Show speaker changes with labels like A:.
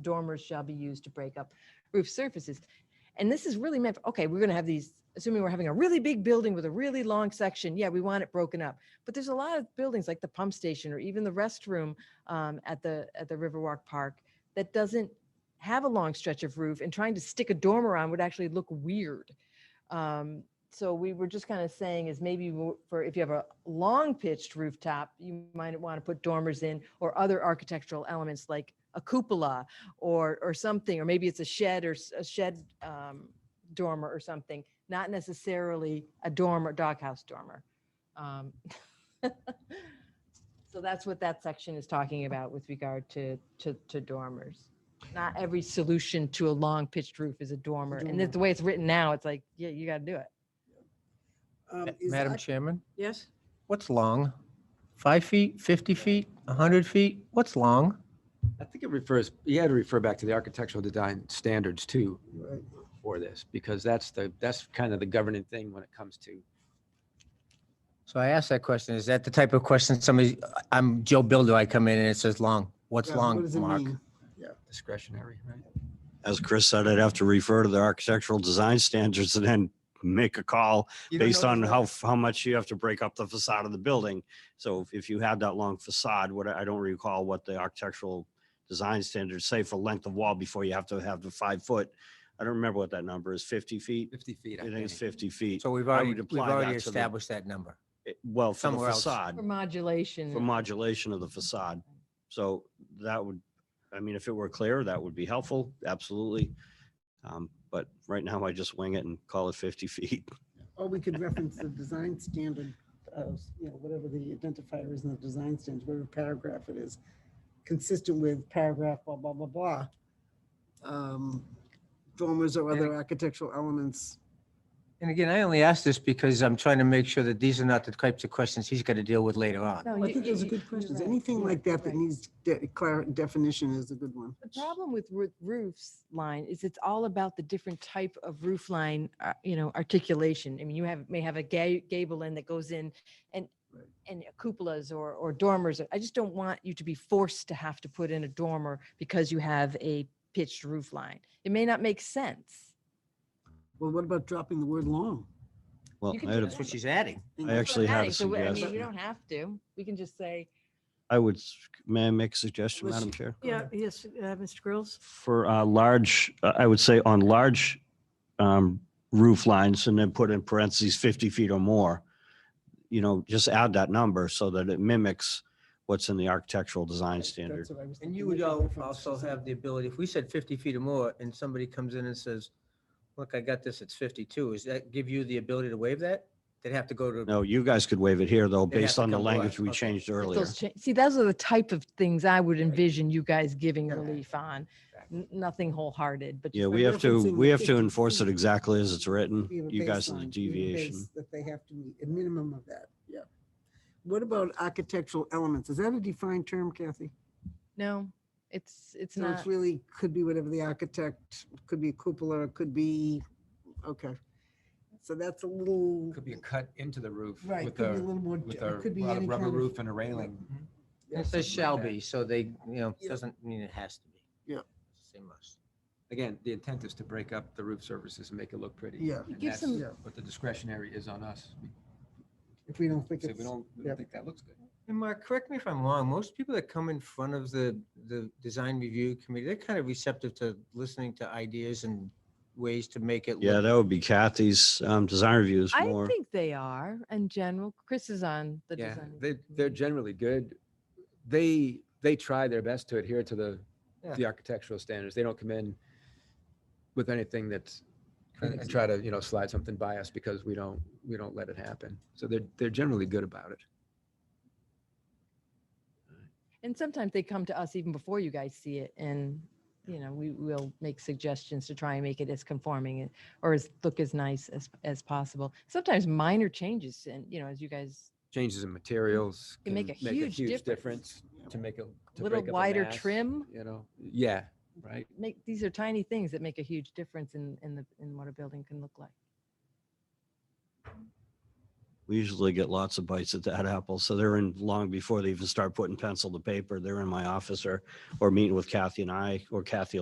A: dormers shall be used to break up roof surfaces. And this is really meant, okay, we're gonna have these, assuming we're having a really big building with a really long section, yeah, we want it broken up. But there's a lot of buildings like the pump station or even the restroom um, at the, at the Riverwalk Park that doesn't have a long stretch of roof and trying to stick a dormer on would actually look weird. Um, so we were just kind of saying is maybe w- for if you have a long pitched rooftop, you might want to put dormers in or other architectural elements like a cupola or or something, or maybe it's a shed or s- a shed um, dormer or something, not necessarily a dormer, doghouse dormer. Um, so that's what that section is talking about with regard to to, to dormers. Not every solution to a long pitched roof is a dormer, and that's the way it's written now, it's like yeah, you got to do it.
B: Um,
C: Ma-
B: is
C: Madam
B: that-
C: Chairman,
B: Yes,
C: what's long? Five feet, 50 feet, 100 feet? What's long?
D: I think it refers, you had to refer back to the architectural design standards too for this, because that's the, that's kind of the governing thing when it comes to.
C: So I asked that question. Is that the type of question somebody, I'm Joe Builder, I come in and it says long. What's
E: Yeah,
C: long,
E: what does it
C: Mark?
E: mean?
D: discretionary, right?
F: As Chris said, I'd have to refer to the architectural design standards and then make a call
C: You don't
F: based
C: know
F: on
C: this
F: how,
C: long?
F: f- how much you have to break up the facade of the building. So if- if you had that long facade, what, I I don't recall what the architectural design standards say for length of wall before you have to have the five foot. I don't remember what that number is, 50 feet?
D: Fifty feet.
F: I think it's 50 feet.
C: So we've
F: I
C: already,
F: would
C: we've
F: apply that
C: already
F: to the-
C: established that number.
F: It- Well, for the
C: Somewhere else.
F: facade,
A: For modulation.
F: for modulation of the facade. So that would, I mean, if it were clear, that would be helpful, absolutely. Um, But right now I just wing it and call it 50 feet.
E: Or Oh, we could reference the design standard, uh, you know, whatever the identifier is in the design standards, whatever paragraph it is, consistent with paragraph blah, blah, blah, blah. Um, Dormers or other architectural elements.
C: And again, I only ask this because I'm trying to make sure that these are not the types of questions he's got to deal with later on.
A: No,
E: I
A: you-
E: think those are
A: you-
E: good
A: you're
E: questions.
A: right,
E: Anything
A: you're
E: like that
A: right.
E: that needs de- clar- definition is a good one.
A: The problem with roo- roofs line is it's all about the different type of roof line, uh, you know, articulation. I mean, you have, may have a ga- gable end that goes in and,
E: Right.
A: and cupolas or, or dormers. I just don't want you to be forced to have to put in a dormer because you have a pitched roof line. It may not make sense.
E: Well, what about dropping the word long?
F: Well,
A: You can
F: I
A: do
F: had a-
A: that.
C: That's what she's adding.
F: I actually had
A: Adding,
F: a
A: so, I mean, You
F: suggestion.
A: don't have to. We can just say,
F: I would, s- may I make a suggestion,
E: Was-
F: Madam Chair?
B: yeah, yes, uh, Mr. Grills?
F: For uh, large, uh, I would say on large um, roof lines and then put in parentheses 50 feet or more, you know, just add that number so that it mimics what's in the architectural design standard.
C: And you would al- also have the ability, if we said 50 feet or more, and somebody comes in and says, look, I got this, it's 52, is that give you the ability to waive that? They'd have to go to,
F: No, you guys could waive it here though,
C: They'd have
F: based
C: to
F: on the
C: come to us.
F: language we
C: Okay.
F: changed
A: if
F: earlier.
A: those, cha- see, those are the type of things I would envision you guys giving
E: Yeah.
A: relief on. N- Nothing wholehearted, but.
F: Yeah,
A: just-
F: we have to,
E: referencing
F: we
E: the
F: have to
E: 50
F: enforce it
E: feet.
F: exactly as it's written.
E: We have a
F: You guys are
E: baseline, we
F: the
E: have a
F: deviation.
E: base That they have to meet, a minimum of that, yeah. What about architectural elements? Is that a defined term, Kathy?
A: No, it's, it's
E: So
A: not.
E: it's really, could be whatever the architect, could be a cupola, it could be, okay. So that's a little,
D: Could be cut into the roof
E: right,
D: with
E: could be a
D: a,
E: little more,
D: with
E: it
D: a
E: could be
D: ru-
E: any
D: rubber
E: kind of- Mm-hmm.
D: roof and a railing.
E: yeah,
C: it says
D: something like
C: shall
D: that.
C: be, so they, you know,
E: Yeah.
C: doesn't mean it has to be.
E: Yeah.
C: Say must.
D: Again, the intent is to break up the roof surfaces and make it look pretty.
E: Yeah.
D: And
A: Give
D: that's
A: some-
E: Yeah.
D: what the discretionary is on us.
E: If we don't think
D: So
E: it's,
D: we don't, we
E: yep.
D: don't think that looks good.
C: And Mark, correct me if I'm wrong, most people that come in front of the, the design review committee, they're kind of receptive to listening to ideas and ways to make it.
F: Yeah,
C: look-
F: that would be Kathy's um, design reviews
A: I
F: more.
A: think they are in general. Chris is on the
D: Yeah,
A: design.
D: they, they're generally good. They, they try their best to adhere to the,
C: Yeah.
D: the architectural standards. They don't come in with anything that's, and- and
C: Crazy.
D: try to, you know, slide something by us because we don't, we don't let it happen. So they're, they're generally good about it.
A: And sometimes they come to us even before you guys see it and, you know, we will make suggestions to try and make it as conforming and- or as, look as nice as, as possible. Sometimes minor changes and, you know, as you guys,
D: Changes in materials.
A: Can make a huge difference.
D: To make a. to
A: Little
D: break up a
A: wider
D: mass,
A: trim.
D: You know, yeah, right.
A: make, these are tiny things that make a huge difference in, in the, in what a building can look like.
F: We usually get lots of bites at that apple. So they're in long before they even start putting pencil to paper. They're in my office or, or meeting with Kathy and I, or Kathy